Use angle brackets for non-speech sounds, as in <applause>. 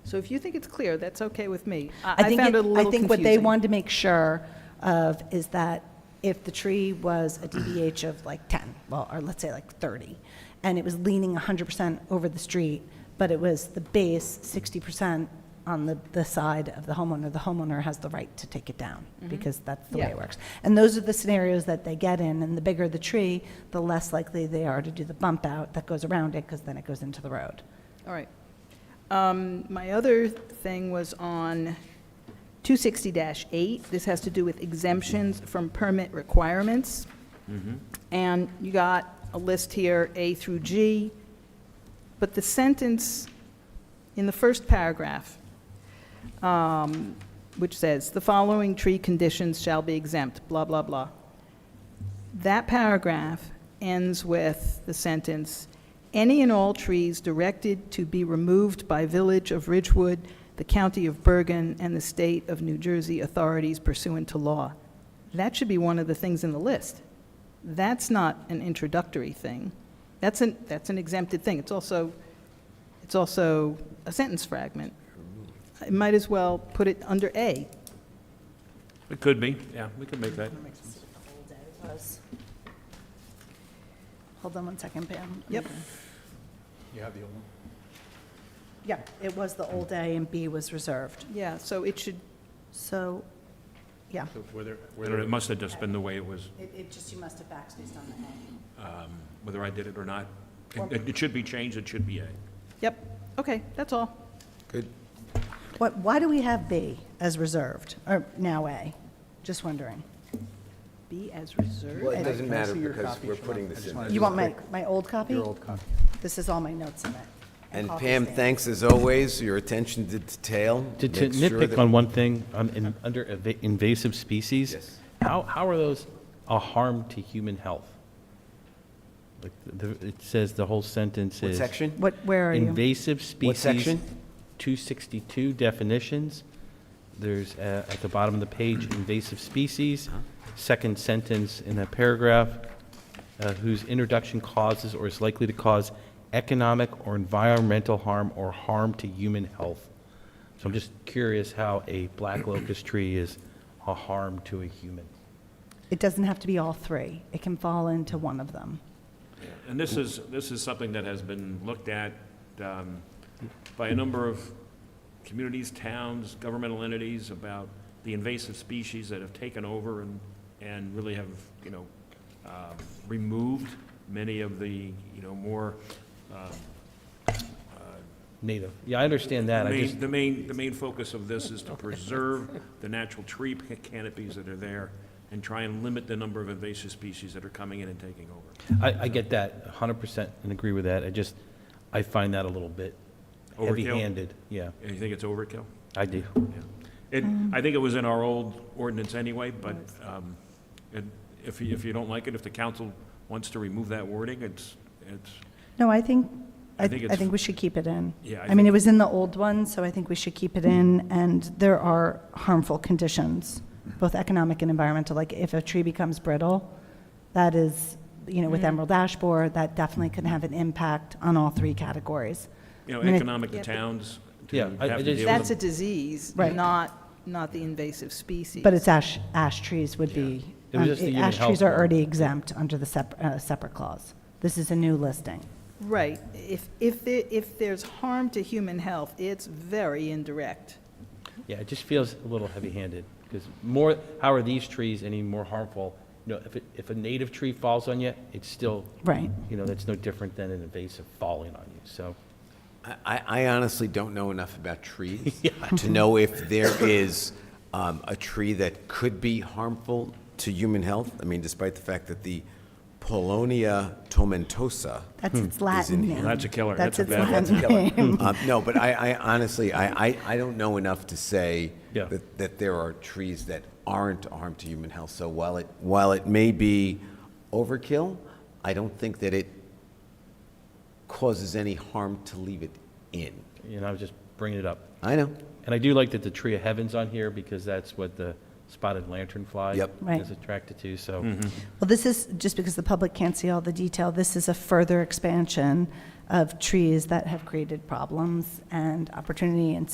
So if you think it's clear, that's okay with me. I I I think, found it- it a little confusing. I think what they wanted to make sure of is that if the tree was a DBH of like 10, well, or let's say like 30, and it was leaning 100% over the street, but it was the base 60% on the, the side of the homeowner, the homeowner has the right to take it down, because that's the way Mm-hmm. Yeah. it works. And those are the scenarios that they get in, and the bigger the tree, the less likely they are to do the bump out that goes around it, because then it goes into the road. All right. Um, My other thing was on 260-8. This has to do with exemptions from permit requirements. And you got a list here, A through G, but the sentence in the first paragraph, um, which says, "The following tree conditions shall be exempt," blah, blah, blah. That paragraph ends with the sentence, "Any and all trees directed to be removed by Village of Ridgewood, the County of Bergen, and the State of New Jersey authorities pursuant to law." That should be one of the things in the list. That's not an introductory thing. That's an, that's an exempted thing. It's also, it's also a sentence fragment. I might as well put it under A. It could be, yeah, we could make that. Hold on one second, Pam. Yep. You have the old one? Yeah, it was the old A and B was reserved. Yeah, so it should, So, yeah. So were there, I were don't know, It there, must have just been the way it was, It, it just, you must have backstayed on the whether I did it or not. It- It it should be changed, it should be A. yep, okay, that's all. good, A. What, why do we have B as reserved, or now A? Just wondering. B as reserved. Well, it Can doesn't I matter see your because copy, we're Sean? putting I this just in. wanted there. to- You want my, my old copy? your old copy. This is all my notes in it. And copies Pam, there. thanks as always, your attention to detail. To to Make sure nitpick that- on one thing, um, in- under eva- invasive species. Yes. How, how are those a harm to human health? Like, the- it says, the whole sentence is. What section? What, where are you? Invasive species. section? 262 definitions. There's, uh, at the bottom of the page, invasive species, second sentence in that paragraph, uh, whose introduction causes or is likely to cause economic or environmental harm or harm to human health. So I'm just curious how a black locust tree is a harm to a human. It doesn't have to be all three. It can fall into one of them. And this is, this is something that has been looked at um, by a number of communities, towns, governmental entities about the invasive species that have taken over and, and really have, you know, um, removed many of the, you know, more, um, Native. Yeah, I understand that. I main- just, The main, the main focus of this is to preserve the natural tree ca- canopies that are there and try and limit the number of invasive species that are coming in and taking over. I, I get that 100% and agree with that. I just, I find that a little bit Overkill? heavy-handed. Yeah, You think it's overkill? I do. Yeah. It, I think it was in our old ordinance anyway, but um, it- if, you- if you don't like it, if the council wants to remove that wording, it's, it's, No, I think, I, I think I it's- think we should keep it in. Yeah, I I mean, think- it was in the old one, so I think we should keep it in, and there are harmful conditions, both economic and environmental, like if a tree becomes brittle, that is, you know, with emerald ash borer, that definitely can have an impact on all three categories. you know, I mean, I- economic to Yeah, but- towns. to Yeah, I- I have to just- deal That's with a them. disease, Right. not, not the invasive species. But it's ash, ash trees would be, It was um, just the human ash trees health are one. already exempt under the sep- uh, separate clause. This is a new listing. Right. If, if, there- if there's harm to human health, it's very indirect. Yeah, it just feels a little heavy-handed, because more, how are these trees any more harmful? You know, if, it- if a native tree falls on you, it's still, Right. you know, that's no different than an invasive falling on you, so. I- I, I honestly don't know enough about trees <laughs> to know if there is um, a tree that could be harmful to human health. I mean, despite the fact that the Polonia tomentosa, That's its Latin in name. here. Hmm. That's a killer. That's a its bad one. Latin <laughs> name. Um, No, but I, I honestly, I, I, I don't know enough to say Yeah. that, that there are trees that aren't a harm to human health. So while it, while it may be overkill, I don't think that it causes any harm to leave it in. You know, I was just bringing it up. I know. And I do like that the tree of heaven's on here, because that's what the spotted lanternfly Yep. Right. is attracted to, so. Well, this is, just because the public can't see all the detail, this is a further expansion of trees that have created problems and opportunity and